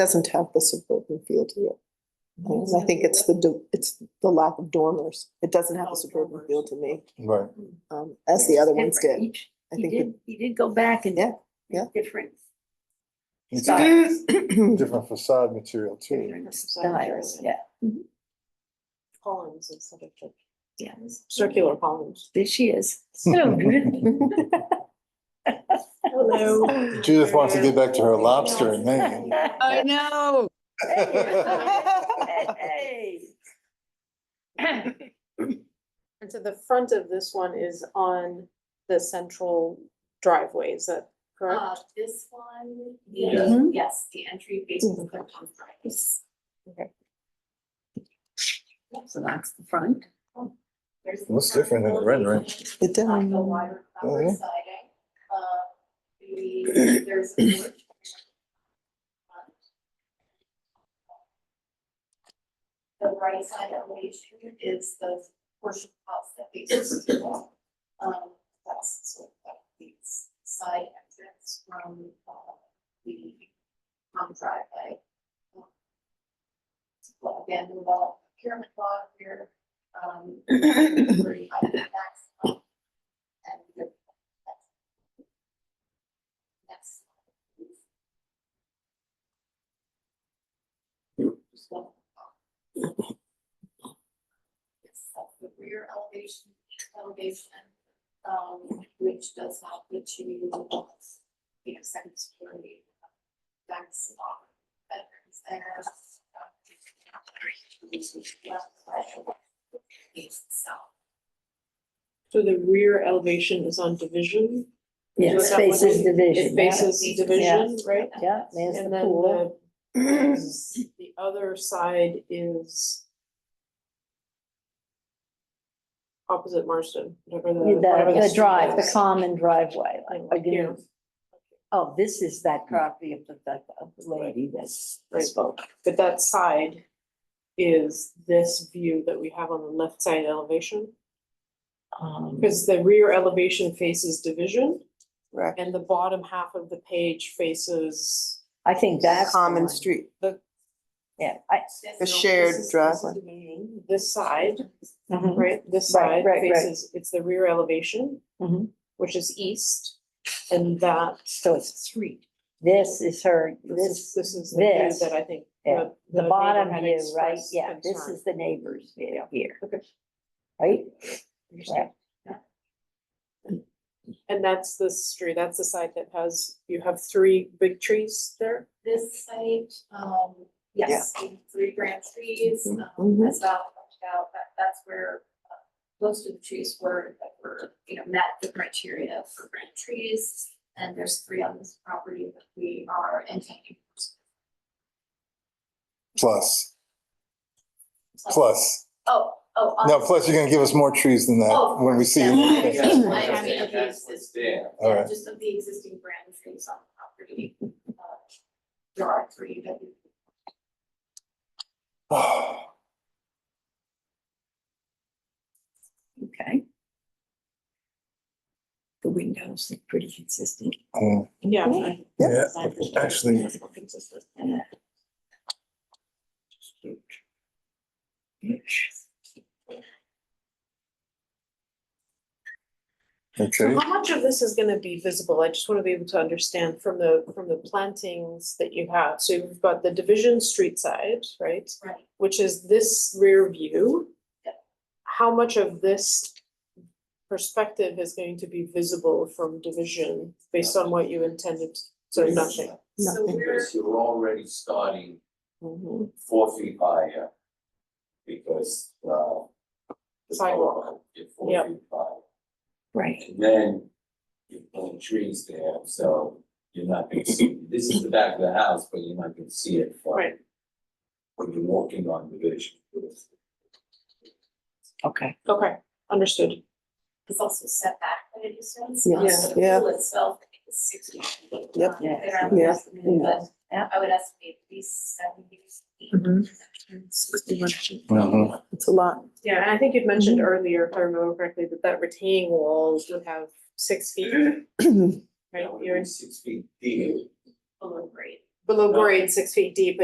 doesn't have the suburban feel to it. Um, I think it's the, do- it's the lack of dormers. It doesn't have Oh, a suburban dormers. feel to me, Right. um, as the other ones Different. did. Each- I He think did, he did go back and. Yeah, yeah. Different. It's styles, it- Different facade material too. different Styles, yeah. Mm-hmm. columns instead of the Yeah. circular columns. There she is. So good. Hello. Judith wants to get back to her lobster in Maine. I know. And so the front of this one is on the central driveway, is that Uh, correct? this one, Yeah. is- yes, the entry faces Yeah. the front on Fridays. So that's the front. There's Looks different than the red, right? It does. Like the wire cover Mhm. siding, uh, the, there's a porch. The right side elevation is the portion of the house that faces the wall. Um, that's sort of the side entrance from, uh, the, um, driveway. Well, Again, the wall, pyramid block here, um, pretty high tax bill. And the- That's. So, um, Yes, that's the rear elevation, elevation, um, which does not get you, you know, second story. That's not, bedrooms there. um, East, south. So the rear elevation is on division? Yeah, Is that what faces it- division. It faces Yeah. division, right? Yeah, there's And the then pool. the, the other side is opposite Marston, The, whatever the. whatever the street drive, the is. common driveway, like, Like again, here. Hmm. Oh, this is that property of the, the of the lady that's Right. spoke. But that side is this view that we have on the left side elevation. Um, Because the rear elevation faces division Right. and the bottom half of the page faces. I think that's. the Common one. street. Yeah, I, The shared This is- this is driveway. division. This side, right, this Mm-hmm. Right, right, side right. faces, it's the rear elevation. Mhm. Which is east and that. so it's street. this is her, This this, is, this is the view this, that I think. yeah, the- the neighbor bottom had view, right? expressed Yeah, this concern. is the neighbors view here. Okay. Right? Understand. And that's the street, that's the side that has, you have three big trees there? This site, um, yes, the three branch trees, um, Mhm. as Val talked about, that, that's where uh, most of the trees were, that were, you know, met the criteria for branch trees. And there's three on this property that we are intending. Plus, to- plus. Oh, oh. on No, this- plus you're gonna give us more trees than that when we see. Yeah. them. Yeah. Okay. I mean, if it's- It's there. All Yeah, right. just of the existing branch trees on the property. uh, There are three that we Okay. The windows look pretty consistent. Mm, Yeah. Yeah, actually, okay. So how much of this is gonna be visible? I just wanna be able to understand from the, from the plantings that you have. So you've got the division street side, right? Right. Which is this rear view. How much of this perspective is going to be visible from division based on what you intended? So nothing. So we're, Because you're already starting Mm-hmm. Mhm. four feet higher. Because, uh. the Sidewalk. pole, You're four Yep. feet high. Right. And then you're pulling trees there, so you're not gonna see, this is the back of the house, but you're not gonna see it from. Right. When you're walking on the vision. Okay. Okay, understood. it's also set back at a distance. Yeah. Um, so the Yeah. pool itself is sixty feet. Yep. um, Yeah. around the Yeah. estimate, but I would estimate at least seventy feet. Mhm. It's a lot. Yeah, and I think you'd mentioned earlier, if I remember correctly, that that retaining wall would have six feet, right? That would You're, be six feet deep. Below grade. below No. grade, six feet deep,